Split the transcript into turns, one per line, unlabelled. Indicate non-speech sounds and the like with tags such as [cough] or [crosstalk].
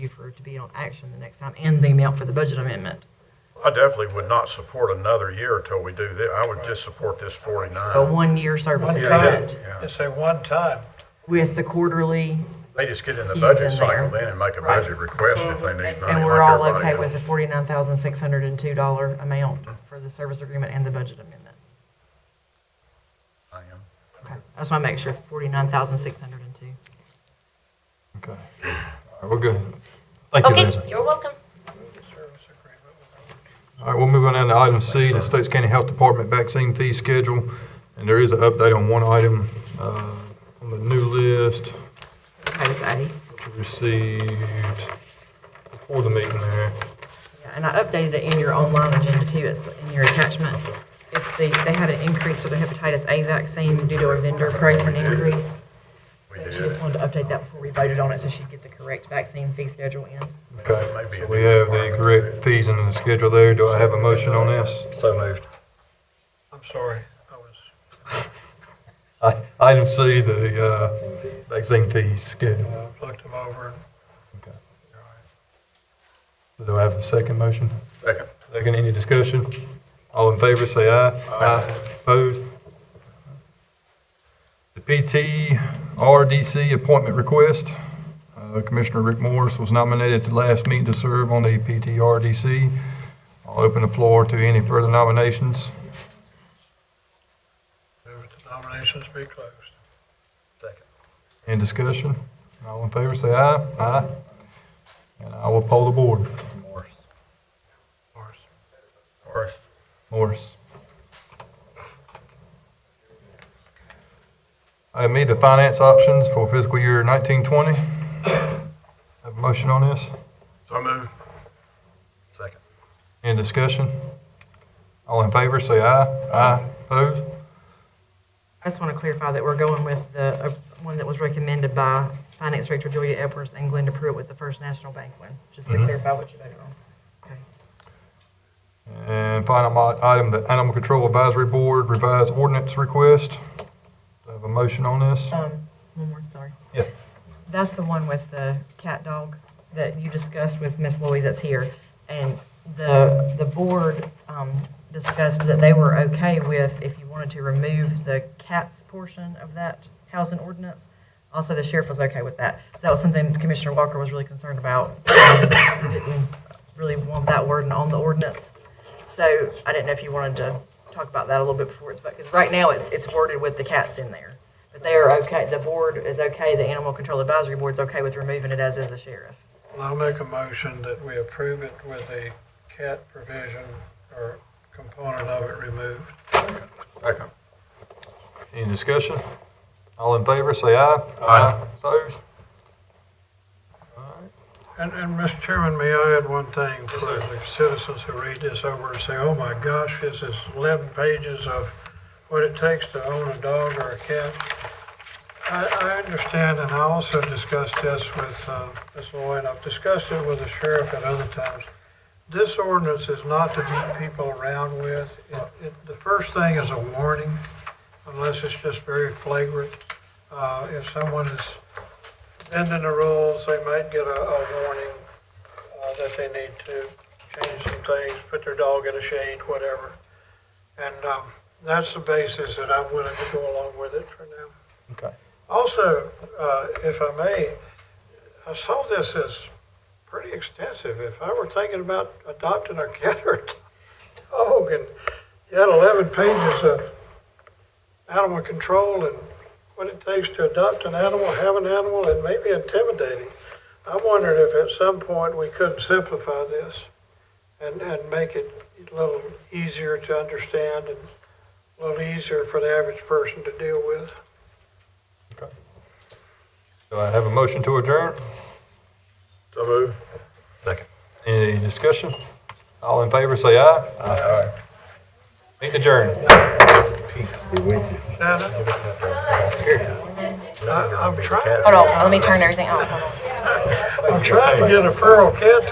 you for it to be on action the next time and the amount for the budget amendment.
I definitely would not support another year until we do this. I would just support this
A
49.
one-year service
Yeah,
agreement
yeah, yeah.
It's a one-time.
with the quarterly,
They just get in the
He's
budget
in there.
cycle then and make a
Right.
budget request if they need money.
and we're
like
all
everybody
okay with the
else.
forty-nine thousand six hundred and two dollar amount for the service agreement and the budget amendment.
I am.
Okay, I just want to make sure, forty-nine thousand six hundred and two.
Okay. All right, we're good. Thank you, Lindsay.
Okay, you're welcome.
All right, we'll move on down to item C, the States County Health Department vaccine fee schedule. And there is an update on one item uh, on the new list
Hi, this is Addie.
we received before the meeting there.
Yeah, And I updated it in your online agenda too, it's in your attachment. It's the, they had an increase for the hepatitis A vaccine due to a vendor pricing increase. So she just wanted to update that before we voted on it, so she'd get the correct vaccine fee schedule in.
Okay, so we have the correct fees in the schedule there. Do I have a motion on this? So moved.
I'm sorry, I was,
Item C, the uh, vaccine fees schedule.
I looked them over.
Okay. Do I have a second motion?
Second.
Second, any discussion? All in favor, say aye. Aye. Opposed? The PTRDC appointment request. Uh, Commissioner Rick Morris was nominated at the last meeting to serve on the PTRDC. I'll open the floor to any further nominations.
Move the nominations be closed.
Any discussion? All in favor, say aye. Aye. And I will poll the board.
Morris.
Morris.
Morris. Item E, the finance options for fiscal year 1920. Have a motion on this?
So moved. Second.
Any discussion? All in favor, say aye. Aye. Opposed?
I just want to clarify that we're going with the, uh, one that was recommended by Finance Director Julia Edwards and Glenda Pruitt with the First National Bank one, just to
Mhm.
clarify what you voted on. Okay.
And final mo- item, the Animal Control Advisory Board revised ordinance request. Have a motion on this?
Um, one more, sorry.
Yeah.
That's the one with the cat dog that you discussed with Miss Lloyd that's here. And the, the board, um, discussed that they were okay with, if you wanted to remove the cats portion of that housing ordinance. Also, the sheriff was okay with that. So that was something Commissioner Walker was really concerned about. [coughs] We didn't Really want that wording on the ordinance. So I didn't know if you wanted to talk about that a little bit before it's, because right now it's, it's worded with the cats in there. But they are okay, the board is okay, the Animal Control Advisory Board's okay with removing it as is the sheriff.
Well, I'll make a motion that we approve it with a cat provision or component of it removed.
Second.
Any discussion? All in favor, say aye.
Aye.
Opposed?
And, and Mr. Chairman, may I add one thing for the citizens who read this over and say, oh my gosh, this is eleven pages of what it takes to own a dog or a cat. I, I understand, and I also discussed this with, uh, Ms. Lloyd, I've discussed it with the sheriff at other times. This ordinance is not to beat people around with. It, it, the first thing is a warning, unless it's just very flagrant. Uh, if someone is bending the rules, they might get a, a warning uh, that they need to change some things, put their dog in a shade, whatever. And um, that's the basis that I'm willing to go along with it for now.
Okay.
Also, uh, if I may, I saw this as pretty extensive. If I were thinking about adopting a cat or a [laughs] dog, and you had 11 pages of animal control and what it takes to adopt an animal, have an animal, it may be intimidating. I wondered if at some point we couldn't simplify this and, and make it a little easier to understand and a little easier for the average person to deal with.
Do I have a motion to adjourn?
So moved. Second.
Any discussion? All in favor, say aye. Aye. Meeting adjourned.
Shannon? I- I'm trying,
Hold on, let me turn everything off, hold on.
I'm trying to get a feral cat